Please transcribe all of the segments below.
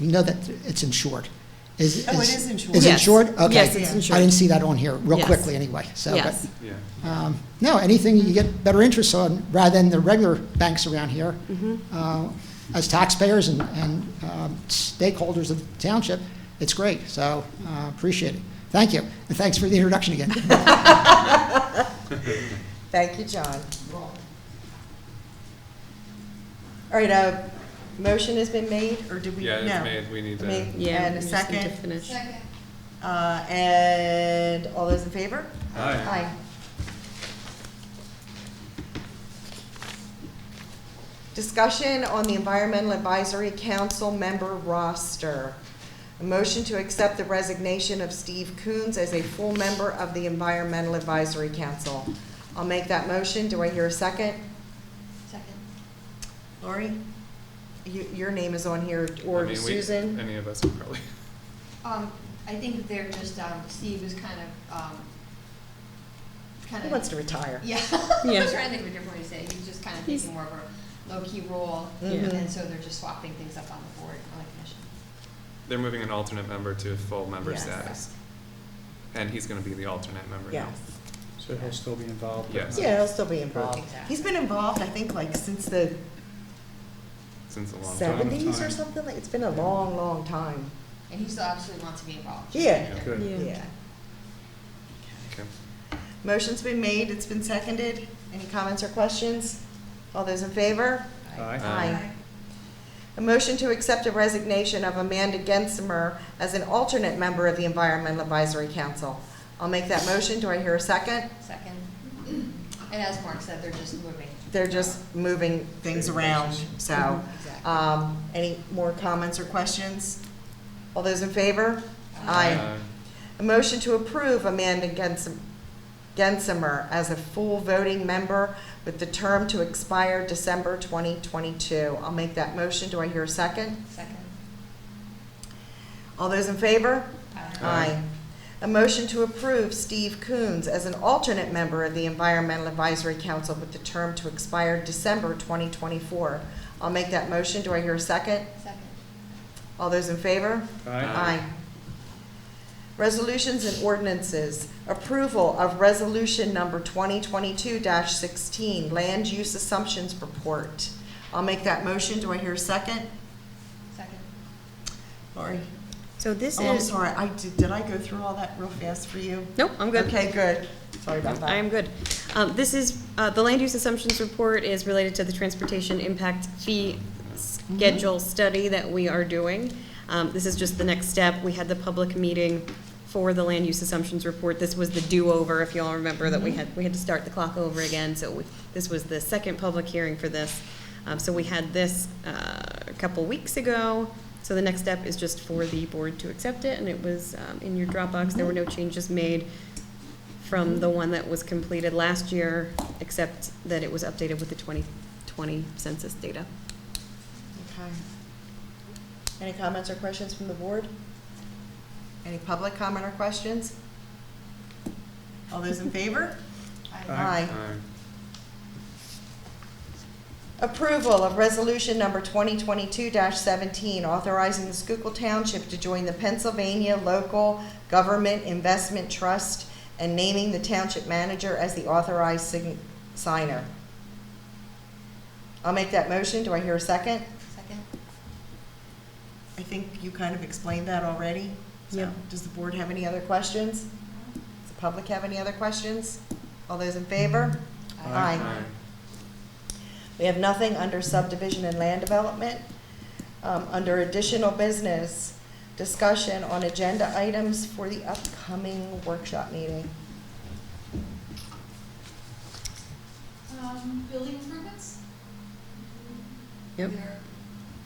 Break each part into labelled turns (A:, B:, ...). A: We know that it's insured. Is-
B: Oh, it
A: is-
B: is insured.
A: Is
C: Yes.
A: insured? Okay.
C: Yes, it's insured.
A: I didn't see that on here, real
C: Yes.
A: quickly, anyway, so. but,
C: Yes.
D: Yeah.
A: um, No, anything you get better interest on, rather than the regular banks around here,
C: Mm-hmm.
A: uh, as taxpayers and and um, stakeholders of the township, it's great, so uh, appreciate it. Thank you, and thanks for the introduction again.
B: Thank you, John. All right, a motion has been made, or did we?
D: Yeah,
B: no.
D: it's made, we need to,
B: Made
C: Yeah.
B: And a
C: we just need to
B: second,
C: finish.
B: uh, and all those in favor?
D: aye.
B: Discussion on the Environmental Advisory Council member roster. A motion to accept the resignation of Steve Coons as a full member of the Environmental Advisory Council. I'll make that motion. Do I hear a second?
E: Second.
B: Lori? You, your name is on here,
D: I
B: or
D: mean, we-
B: Susan?
D: Any of us would probably,
E: Um, I think they're just, um, Steve is kind of, um, kind
B: He
E: of.
B: wants to retire.
E: Yeah. I
C: Yeah.
E: was trying to think of a different way to say it. He's just kind of
C: He's-
E: taking more of a low-key role.
B: Mhm.
E: And so they're just swapping things up on the board, on the commission.
D: they're moving an alternate member to full member
B: Yes.
D: status. And he's gonna be the alternate member now.
B: Yes.
F: So he'll still be involved? but
D: Yes.
F: not-
B: Yeah, he'll still be involved.
E: Exactly.
B: He's been involved, I think, like, since the
D: Since a long time.
B: seventies or
F: Time.
B: something, like, it's been a long, long time.
E: And he still absolutely wants to be involved.
B: Yeah.
F: Good.
C: Yeah.
B: Yeah.
D: Okay.
B: Motion's been made, it's been seconded. Any comments or questions? All those in favor?
F: Aye.
D: Aye.
B: A motion to accept a resignation of Amanda Gensimer as an alternate member of the Environmental Advisory Council. I'll make that motion, do I hear a second?
E: Second. And as Mark said, they're just moving.
B: They're just moving things around, so.
E: Exactly.
B: um, Any more comments or questions? All those in favor? Aye.
D: Aye.
B: A motion to approve Amanda Gensim- Gensimer as a full voting member with the term to expire December 2022. I'll make that motion. Do I hear a second?
E: Second.
B: All those in favor?
E: Aye.
B: Aye. A motion to approve Steve Coons as an alternate member of the Environmental Advisory Council with the term to expire December 2024. I'll make that motion. Do I hear a second?
E: Second.
B: All those in favor?
F: Aye.
B: Aye. Resolutions and ordinances. Approval of Resolution Number 2022-16, Land Use Assumptions Report. I'll make that motion. Do I hear a second?
E: Second.
B: Lori?
C: So this
B: Oh, I'm
C: is,
B: sorry. I, did Did I go through all that real fast for you?
C: nope, I'm good.
B: Okay, good. Sorry about that.
C: I am good. Um, This is, uh, the land use assumptions report is related to the transportation impact fee schedule study that we are doing. Um, This is just the next step. We had the public meeting for the land use assumptions report. This was the do-over, if you all remember, that we had, we had to start the clock over again. So we- this was the second public hearing for this. Um, So we had this uh, a couple weeks ago. So the next step is just for the board to accept it, and it was um, in your Dropbox. There were no changes made from the one that was completed last year, except that it was updated with the 2020 census data.
B: Okay. Any comments or questions from the board? Any public comment or questions? All those in favor?
F: Aye.
D: Aye.
B: Approval of Resolution Number 2022-17, authorizing the Schuylkill Township to join the Pennsylvania Local Government Investment Trust and naming the township manager as the authorized sign- signer. I'll make that motion. Do I hear a second?
E: Second.
B: I think you kind of explained that already. So,
C: Yep.
B: Does the board have any other questions? Does the public have any other questions? All those in favor?
F: Aye.
D: Aye.
B: We have nothing under subdivision and land development. Um, Under additional business, discussion on agenda items for the upcoming workshop meeting.
E: Um, building improvements?
C: Yep.
E: They're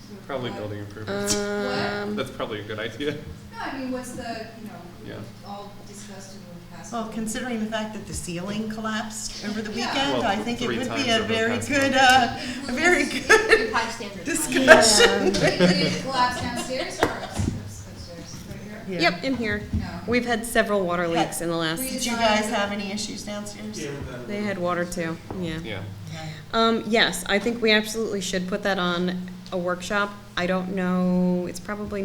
E: sort of
D: Probably
E: like-
D: building improvements.
C: Um,
D: That's probably a good idea.
E: No, I mean, what's the, you know,
D: Yeah.
E: all discussed in the past.
B: Well, considering the fact that the ceiling collapsed over the
E: Yeah.
B: weekend,
D: Well,
B: I think it
D: three
B: would be
D: times
B: a
D: over the
B: very
D: past
B: good,
D: month.
B: uh, a very good
E: High standards.
B: discussion.
E: Did it collapse downstairs or upstairs? Upstairs, right here?
B: Yeah.
C: Yep, in here.
E: No.
C: We've had several water leaks in the last,
B: Did you guys have any issues downstairs?
C: they had water too, yeah.
D: Yeah.
C: Um, yes, I think we absolutely should put that on a workshop. I don't know, it's probably